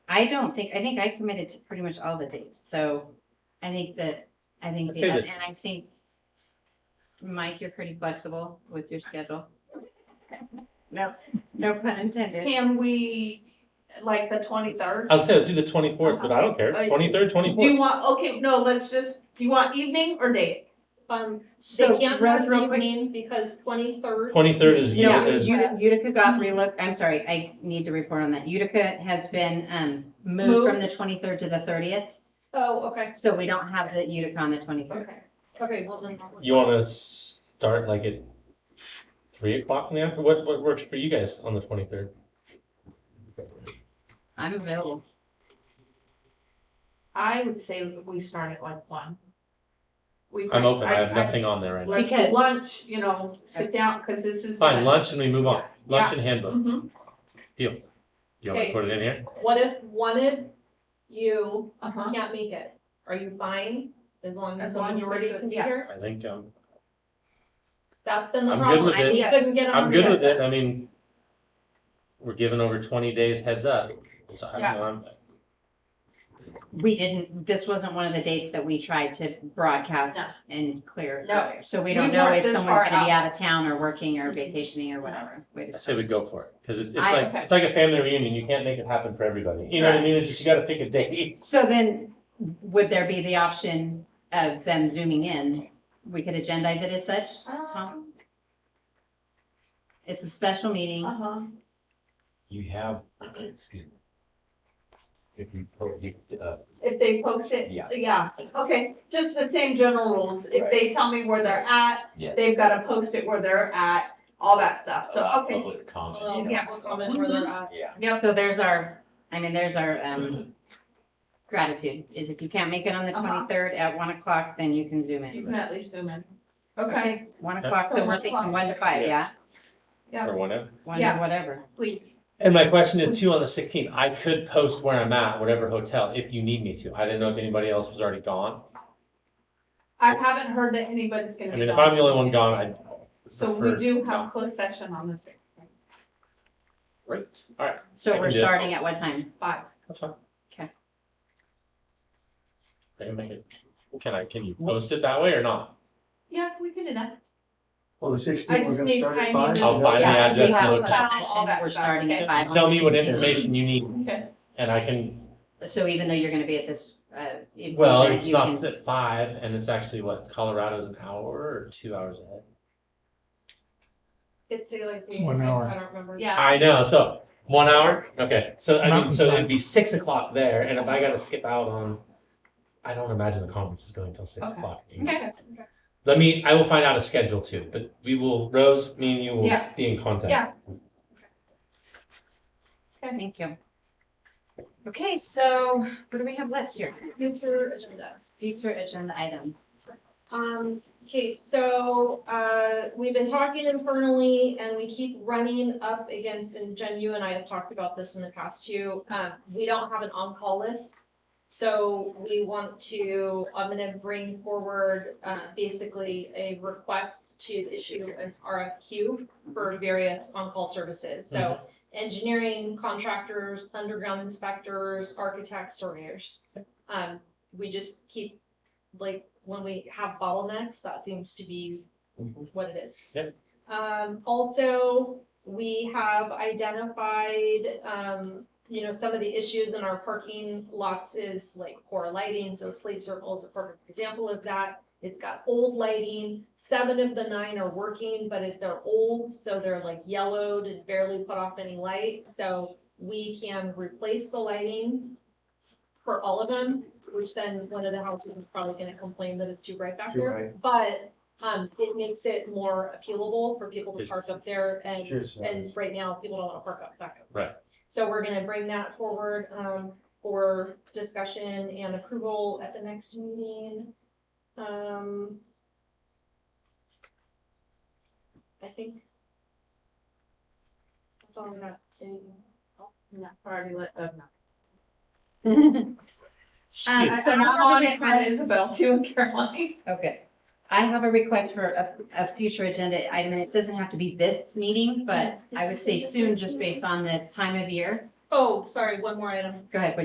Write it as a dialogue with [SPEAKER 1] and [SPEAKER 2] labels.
[SPEAKER 1] I don't think, I think I committed to pretty much all the dates, so I think that, I think,
[SPEAKER 2] Let's
[SPEAKER 1] the-
[SPEAKER 2] say that-
[SPEAKER 1] and I think, Mike, you're pretty flexible with your schedule. No, no pun intended.
[SPEAKER 3] Can we, like, the twenty-third?
[SPEAKER 2] I'll say let's do the twenty-fourth, but I don't care,
[SPEAKER 3] Uh,
[SPEAKER 2] twenty-third,
[SPEAKER 3] Do
[SPEAKER 2] twenty-fourth.
[SPEAKER 3] you want, okay, no, let's just, do you want evening or day?
[SPEAKER 4] Um, they
[SPEAKER 1] So,
[SPEAKER 4] can't
[SPEAKER 1] Rose,
[SPEAKER 4] do
[SPEAKER 1] real quick,
[SPEAKER 4] evening because twenty-third.
[SPEAKER 2] Twenty-third is,
[SPEAKER 1] no,
[SPEAKER 2] yeah,
[SPEAKER 4] Yeah.
[SPEAKER 2] is,
[SPEAKER 1] Utica Utica got relooked, I'm sorry, I need to report on that. Utica has been, um, moved from
[SPEAKER 3] Moved.
[SPEAKER 1] the twenty-third to the thirtieth,
[SPEAKER 4] Oh, okay,
[SPEAKER 1] so we don't have the Utica on the twenty-third.
[SPEAKER 3] Okay, okay, well then. that works.
[SPEAKER 2] you wanna start like at three o'clock in the afternoon? What, what works for you guys on the twenty-third?
[SPEAKER 1] I'm available.
[SPEAKER 3] I would say we start at like one. We
[SPEAKER 2] I'm
[SPEAKER 3] could-
[SPEAKER 2] open, I have nothing on there right now.
[SPEAKER 3] Let's do
[SPEAKER 1] Because-
[SPEAKER 3] lunch, you know, sit down, cause this is.
[SPEAKER 2] Fine,
[SPEAKER 3] gonna-
[SPEAKER 2] lunch and we move on, lunch and handbook,
[SPEAKER 3] Mhm.
[SPEAKER 2] deal. Do you wanna
[SPEAKER 4] Okay.
[SPEAKER 2] put it in here?
[SPEAKER 4] what if, one if you
[SPEAKER 3] Uh-huh.
[SPEAKER 4] can't make it? Are you fine? As long as
[SPEAKER 3] As long
[SPEAKER 4] the
[SPEAKER 3] as you're
[SPEAKER 4] majority
[SPEAKER 3] so-
[SPEAKER 4] can be
[SPEAKER 3] yeah.
[SPEAKER 4] here?
[SPEAKER 2] I think, um,
[SPEAKER 4] That's been the
[SPEAKER 2] I'm good
[SPEAKER 4] problem.
[SPEAKER 2] with
[SPEAKER 4] I-
[SPEAKER 2] it.
[SPEAKER 4] We couldn't get a
[SPEAKER 2] I'm good with it,
[SPEAKER 4] hundred
[SPEAKER 2] I mean, we're giving over twenty days heads up, so I
[SPEAKER 3] Yeah.
[SPEAKER 2] don't know, I'm,
[SPEAKER 1] We didn't, this wasn't one of the dates that we tried to broadcast
[SPEAKER 3] No.
[SPEAKER 1] and clear.
[SPEAKER 3] No.
[SPEAKER 1] earlier. So we
[SPEAKER 3] We
[SPEAKER 1] don't know
[SPEAKER 3] weren't
[SPEAKER 1] if
[SPEAKER 3] this
[SPEAKER 1] someone's
[SPEAKER 3] far
[SPEAKER 1] gonna be
[SPEAKER 3] out.
[SPEAKER 1] out of town or working or
[SPEAKER 3] Mhm.
[SPEAKER 1] vacationing or whatever. We
[SPEAKER 2] I
[SPEAKER 1] just
[SPEAKER 2] say we go for it, cause it's, it's
[SPEAKER 1] I-
[SPEAKER 2] like,
[SPEAKER 3] okay.
[SPEAKER 2] it's like a family reunion, you can't make it happen for everybody, you know what I
[SPEAKER 1] Right.
[SPEAKER 2] mean, it's just you gotta pick a date.
[SPEAKER 1] So then, would there be the option of them zooming in? We could agendize it as such, Tom?
[SPEAKER 3] Um,
[SPEAKER 1] It's a special meeting.
[SPEAKER 3] Uh-huh.
[SPEAKER 5] you have, excuse me. If you, pro- you, uh,
[SPEAKER 3] If they post it?
[SPEAKER 5] Yeah.
[SPEAKER 3] okay, just the same general rules, if they tell me where they're at,
[SPEAKER 5] Yeah.
[SPEAKER 3] they've gotta post it where they're at, all that stuff, so,
[SPEAKER 2] Uh,
[SPEAKER 5] allow
[SPEAKER 3] okay.
[SPEAKER 5] Public
[SPEAKER 4] percent.
[SPEAKER 5] comment,
[SPEAKER 4] Um,
[SPEAKER 5] you know,
[SPEAKER 3] Yeah.
[SPEAKER 4] comment where they're at.
[SPEAKER 5] yeah.
[SPEAKER 3] Yep,
[SPEAKER 1] So there's our, I mean, there's our um, gratitude, is if you can't make it on the
[SPEAKER 3] Uh-huh.
[SPEAKER 1] twenty-third at one o'clock, then you can zoom
[SPEAKER 3] you
[SPEAKER 1] in.
[SPEAKER 3] can at least zoom in, okay,
[SPEAKER 1] One o'clock,
[SPEAKER 3] So
[SPEAKER 1] so we're
[SPEAKER 3] one
[SPEAKER 1] thinking
[SPEAKER 3] o'clock.
[SPEAKER 1] one to five,
[SPEAKER 2] Yeah.
[SPEAKER 1] yeah?
[SPEAKER 3] Yeah.
[SPEAKER 2] Or whatever.
[SPEAKER 1] One
[SPEAKER 3] Yeah.
[SPEAKER 1] to whatever.
[SPEAKER 3] please.
[SPEAKER 2] And my question is too, on the sixteenth, I could post where I'm at, whatever hotel, if you need me to. I didn't know if anybody else was already gone.
[SPEAKER 3] I haven't heard that anybody's gonna.
[SPEAKER 2] I
[SPEAKER 3] be
[SPEAKER 2] mean, if
[SPEAKER 3] gone.
[SPEAKER 2] I'm the only one gone, I
[SPEAKER 3] So we
[SPEAKER 2] prefer
[SPEAKER 3] do have
[SPEAKER 2] not.
[SPEAKER 3] closed session on the sixth,
[SPEAKER 2] Right, all right, I
[SPEAKER 1] So
[SPEAKER 2] can
[SPEAKER 1] we're
[SPEAKER 2] do it.
[SPEAKER 1] starting at what time?
[SPEAKER 3] five,
[SPEAKER 2] that's fine.
[SPEAKER 1] 'Kay.
[SPEAKER 2] I can make it, can I, can you post it that way or not?
[SPEAKER 3] yeah, we can do that,
[SPEAKER 6] Well, the
[SPEAKER 3] I
[SPEAKER 6] sixteenth, we're
[SPEAKER 3] just
[SPEAKER 6] gonna
[SPEAKER 3] need,
[SPEAKER 6] start
[SPEAKER 3] I
[SPEAKER 6] at
[SPEAKER 3] need.
[SPEAKER 6] five.
[SPEAKER 3] to-
[SPEAKER 2] I'll find the
[SPEAKER 3] yeah,
[SPEAKER 2] address
[SPEAKER 3] we
[SPEAKER 2] and
[SPEAKER 3] have
[SPEAKER 2] the
[SPEAKER 3] a
[SPEAKER 2] hotel.
[SPEAKER 3] session, all that
[SPEAKER 1] We're
[SPEAKER 3] stuff,
[SPEAKER 1] starting at
[SPEAKER 3] okay.
[SPEAKER 1] five. on
[SPEAKER 2] Tell me what
[SPEAKER 1] the 16th.
[SPEAKER 2] information you need
[SPEAKER 3] Okay,
[SPEAKER 2] and I can,
[SPEAKER 1] So even though you're gonna be at this, uh. event,
[SPEAKER 2] well, it
[SPEAKER 1] you
[SPEAKER 2] stops
[SPEAKER 1] can-
[SPEAKER 2] at five and it's actually what, Colorado's an hour or two hours ahead?
[SPEAKER 4] It's daylight savings
[SPEAKER 6] One
[SPEAKER 4] time,
[SPEAKER 6] hour.
[SPEAKER 4] I don't remember.
[SPEAKER 3] yeah,
[SPEAKER 2] I know, so one hour, okay, so I mean,
[SPEAKER 6] Mountain
[SPEAKER 2] so it'd
[SPEAKER 6] time.
[SPEAKER 2] be six o'clock there, and if I gotta skip out on, I don't imagine the conference is going till six
[SPEAKER 3] Okay.
[SPEAKER 2] o'clock.
[SPEAKER 3] okay,
[SPEAKER 2] Let me, I will find out a schedule too, but we will, Rose, me and you will
[SPEAKER 3] Yeah.
[SPEAKER 2] be in contact.
[SPEAKER 3] Yeah.
[SPEAKER 1] Thank you. Okay, so what do we have left here?
[SPEAKER 4] Future agenda.
[SPEAKER 1] Future agenda items.
[SPEAKER 4] Um, okay, so, uh, we've been talking internally and we keep running up against, and Jen, you and I have talked about this in the past too. Um, we don't have an on-call list. So we want to, I'm gonna bring forward, uh, basically a request to issue an RFQ for various on-call services. So engineering contractors, underground inspectors, architects, surveyors. Um, we just keep, like, when we have bottlenecks, that seems to be
[SPEAKER 2] Mhm.
[SPEAKER 4] what it is.
[SPEAKER 2] Yep.
[SPEAKER 4] Um, also, we have identified, um, you know, some of the issues in our parking lots is like poor lighting, so slate circle is a perfect example of that. It's got old lighting, seven of the nine are working, but if they're old, so they're like yellowed and barely put off any light, so we can replace the lighting for all of them, which then one of the houses is probably gonna complain that it's too bright back
[SPEAKER 6] You're
[SPEAKER 4] there. But, um, it makes it more appealable for people to park up there and
[SPEAKER 6] Cheers.
[SPEAKER 4] and right now, people don't wanna park up, back up.
[SPEAKER 2] Right.
[SPEAKER 4] So we're gonna bring that forward, um, for discussion and approval at the next meeting. Um. I think. That's all I got. Anything else?
[SPEAKER 3] yeah, already let, uh, no.
[SPEAKER 1] Um,
[SPEAKER 3] So now on it, Isabel too, and Caroline.
[SPEAKER 1] Okay. I have a request for a, a future agenda item, and it doesn't have to be this meeting, but I would say soon, just based on the time of year.
[SPEAKER 4] Oh, sorry, one more item.
[SPEAKER 1] Go ahead, what